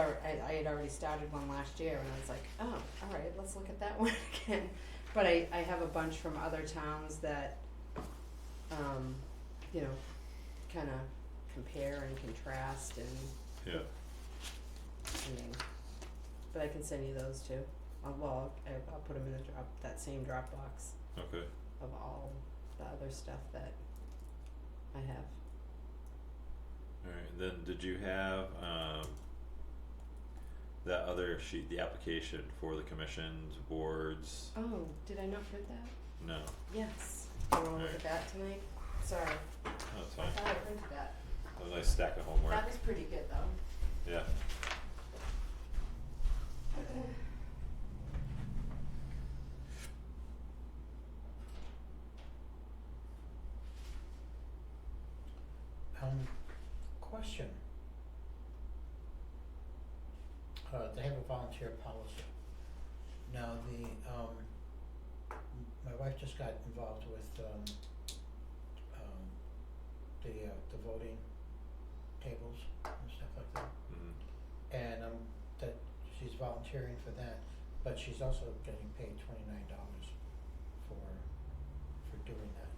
I, I had already started one last year and I was like, oh, all right, let's look at that one again. But I, I have a bunch from other towns that, um, you know, kinda compare and contrast and yeah, meeting. But I can send you those too. I'll, well, I'll, I'll put them in the drop, that same Dropbox okay, of all the other stuff that I have. alright, and then did you have, um, that other sheet, the application for the commissions, boards, Oh, did I not print that? no, Yes. You wanna look at Alright. that tonight? Sorry, that's I fine, thought I printed that. a nice stack of homework, That was pretty good though. yeah. Um, question. Uh, they have a volunteer policy. Now, the, um, m- my wife just got involved with, um, um, the, uh, the voting tables and stuff like that. Mhm. And, um, that, she's volunteering for that, but she's also getting paid twenty-nine dollars for, for doing that.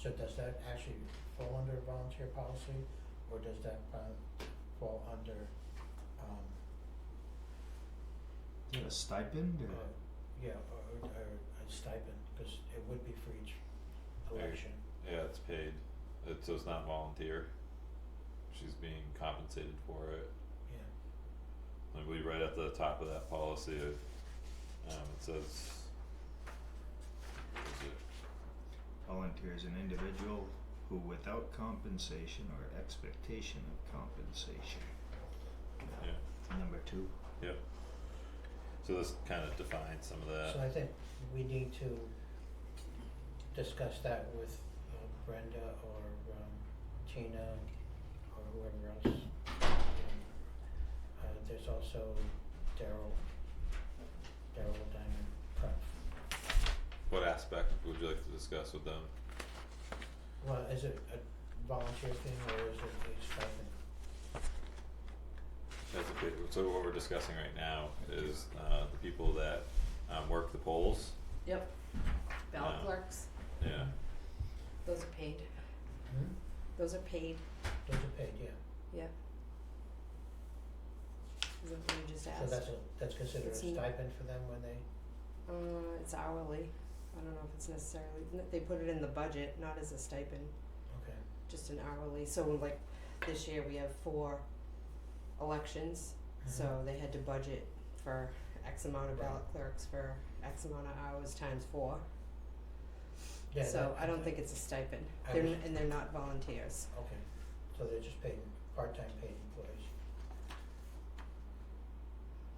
So does that actually fall under volunteer policy, or does that uh, fall under, um, Get a stipend uh, or yeah, or, or a stipend, cause it would be for each There. election, Yeah, it's paid, it, so it's not volunteer, she's being compensated for it, yeah. I believe right at the top of that policy, it, um, it says. is it volunteer is an individual who without compensation or expectation of compensation. Number two. So this kind of defines some of So that. I think we need to discuss that with uh, Brenda or um, Tina or whoever else. Um, Uh, there's also Daryl, Daryl Diamond Prep. What aspect would you like to discuss with them? Well, is it a volunteer thing or is it a stipend? As a bit- so what we're discussing right now is uh, the people that um, work the polls. Yep. Ballot Yeah. clerks, Yeah. those are paid, Hmm? those are paid, Those are paid, yeah. yeah. Is that what you just So asked? that's a, that's considered a It's n- stipend for them when they, Uh, it's hourly, I don't know if it's necessarily, n- they put it in the budget, not as a stipend. okay, just an hourly, so like this year we have four elections, Mm-hmm. so they had to budget for X amount of ballot clerks for X amount of hours times four. yeah, So that- I don't think it's a stipend, I they're, was- n- and they're not volunteers, Okay, so they're just paid, part-time paid employees.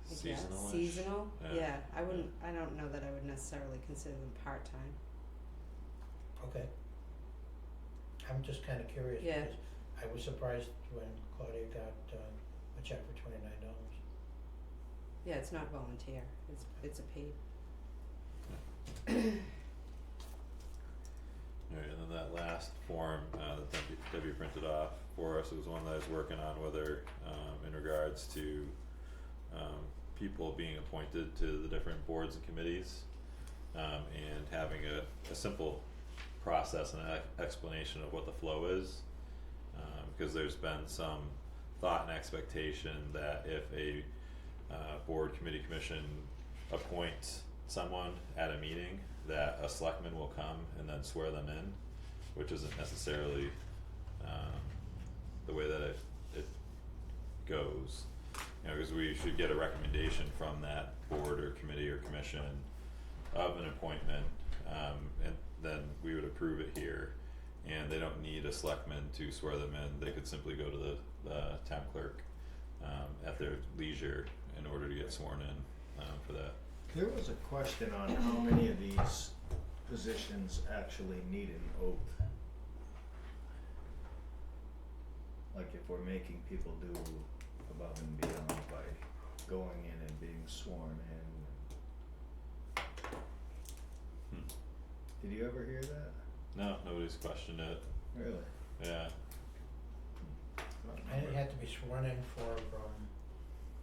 I guess. Seasonal. Seasonal, Yeah. yeah, I wouldn't, I don't know that I would necessarily consider them part-time, Okay. I'm just kinda curious Yeah. because I was surprised when Claudia got uh a check for twenty nine dollars. yeah, it's not volunteer, it's, it's a paid, Alright, and then that last form uh, that Debbie, Debbie printed off for us was one that I was working on with her um, in regards to um, people being appointed to the different boards and committees um, and having a, a simple process and an e- explanation of what the flow is. Um, because there's been some thought and expectation that if a uh, board, committee, commission appoints someone at a meeting, that a selectman will come and then swear them in, which isn't necessarily um, the way that it, it goes. You know, because we should get a recommendation from that board or committee or commission of an appointment, um, and then we would approve it here. And they don't need a selectman to swear them in, they could simply go to the, the town clerk, um, at their leisure in order to get sworn in, um, for that. There was a question on how many of these positions actually need an oath. Like if we're making people do above and beyond by going in and being sworn in. Hmm. Did you ever hear that? No, nobody's questioned it, Really? Hmm. yeah. And it had to be sworn in for um